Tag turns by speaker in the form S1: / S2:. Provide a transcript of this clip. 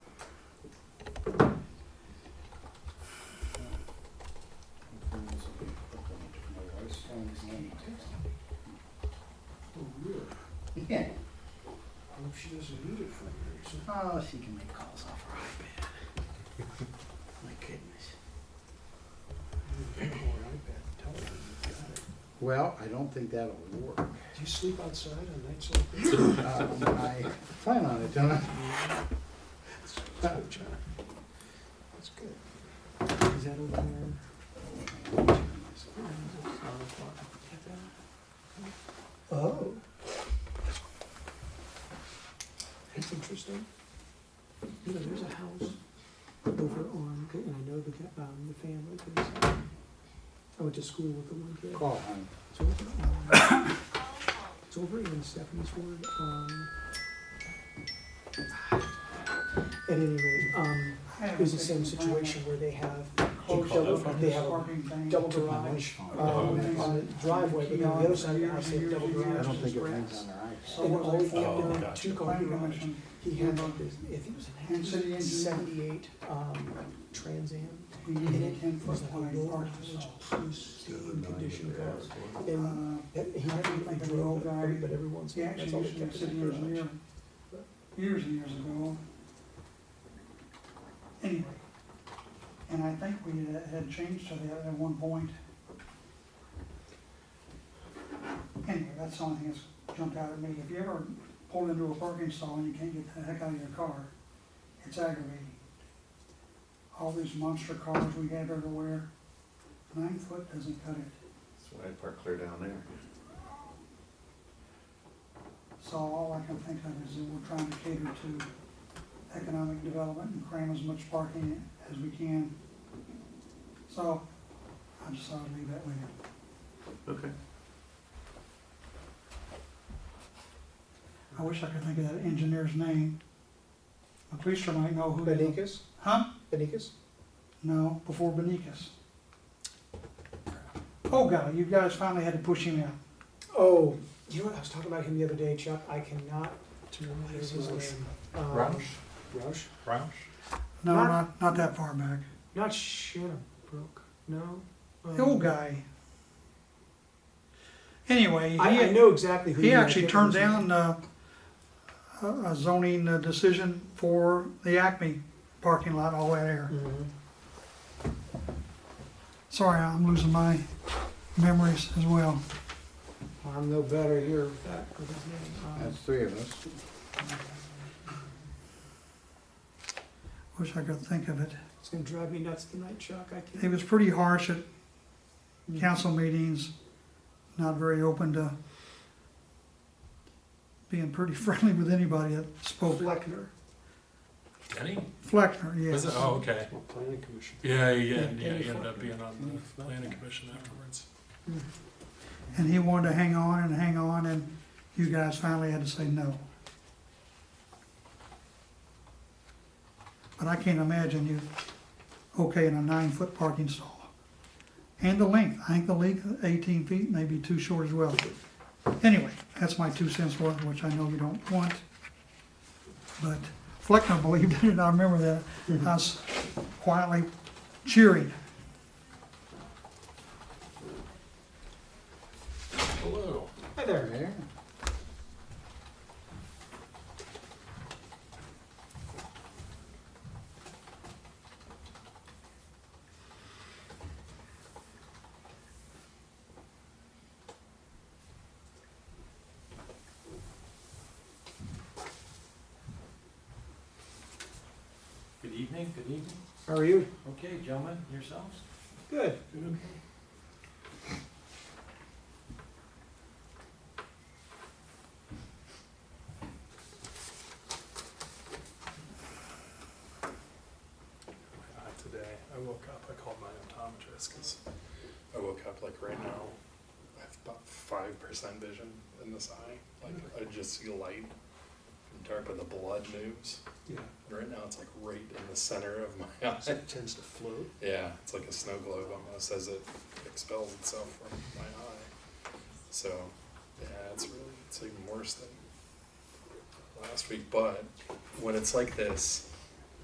S1: Oh,
S2: Oh, she can make calls off her iPad. My goodness. Well, I don't think that'll work. Uh,
S1: Do you sleep outside on nights like this?
S2: Um, I plan on it, don't I?
S1: Oh, John. That's good.
S3: Is that over there?
S1: Oh. That's interesting.
S3: You know, there's a house over on, and I know the, guy- um, the family, 'cause I went to school with the one kid.
S2: Call home.
S3: It's over, um, it's over in Stephanie's word, um. At any rate, um, it was the same situation where they have a double, they have a double garage, um, on the driveway, but on the other side of the house, they have double
S2: I
S3: garage.
S2: don't think it hangs on her iPad.
S3: And all he kept
S4: Oh,
S3: doing,
S4: gotcha.
S3: two car garage, he had like this, I think it was a nineteen seventy-eight, um, Trans Am, and it was like a lower mileage, pristine condition car. And that- He never really drove, but every- but every once in a while, that's all he kept in the garage.
S5: years and years ago. Anyway, and I think we had- had changed to that at one point. Anyway, that's the only thing that's jumped out at me. If you ever pull into a parking stall and you can't get the heck out of your car, it's aggravating. All these monster cars we have everywhere, nine foot doesn't cut it.
S4: That's why I park clear down there.
S5: So all I can think of is that we're trying to cater to economic development and cram as much parking as we can. So I just thought I'd leave that with you.
S4: Okay.
S5: I wish I could think of that engineer's name. The policeman might know who. he-
S3: Benicus,
S5: Huh?
S3: Benicus,
S5: No, before Benicus. Oh, God, you guys finally had to push him out.
S3: oh, you know what, I was talking about him the other day, Chuck, I cannot remember his name. Um, Roush?
S4: Roush?
S5: No,
S3: Not-
S5: not, not that far back.
S3: Not Shannon Brook, no. um,
S5: The old guy. Anyway, he.
S3: I, I know exactly who.
S5: He
S3: you mean, I
S5: actually
S3: can't
S5: turned
S3: remember his
S5: down uh, a a zoning uh, decision for the Acme parking lot all the way there.
S3: name. Mhm.
S5: Sorry, I'm losing my memories as well.
S3: I'm no better here with that, with his name. Um,
S2: That's three of us.
S5: Wish I could think of it.
S3: It's gonna drive me nuts tonight, Chuck, I
S5: He
S3: can't.
S5: was pretty harsh at council meetings, not very open to being pretty friendly with anybody that spoke.
S3: Fleckner.
S6: Denny?
S5: Fleckner, yes.
S6: Was it? Oh, okay.
S1: Well, planning commission.
S6: Yeah, yeah,
S3: Yeah,
S6: yeah. He
S3: Denny
S6: ended
S3: Fortner.
S6: up being on the planning commission afterwards.
S5: And he wanted to hang on and hang on, and you guys finally had to say no. But I can't imagine you okay in a nine-foot parking stall. And the length, I think the length, of eighteen feet may be too short as well. Anyway, that's my two cents worth, which I know you don't want. But Fleckner believed it, and I remember that, us quietly cheering.
S6: Hello.
S3: Hi there.
S2: There.
S7: Good evening, good evening.
S3: How are you?
S7: Okay, gentlemen, yourselves?
S3: Good.
S6: Uh, Today, I woke up, I called my optometrist because I woke up like right now. I have about five percent vision in this eye.
S1: Mm.
S6: Like I just see light and dark, but the blood moves.
S1: Yeah.
S6: Right now, it's like right in the center of my eye.
S1: It tends to float.
S6: Yeah, it's like a snow globe almost as it expels itself from my eye. So, yeah, it's really, it's even worse than last week. But when it's like this,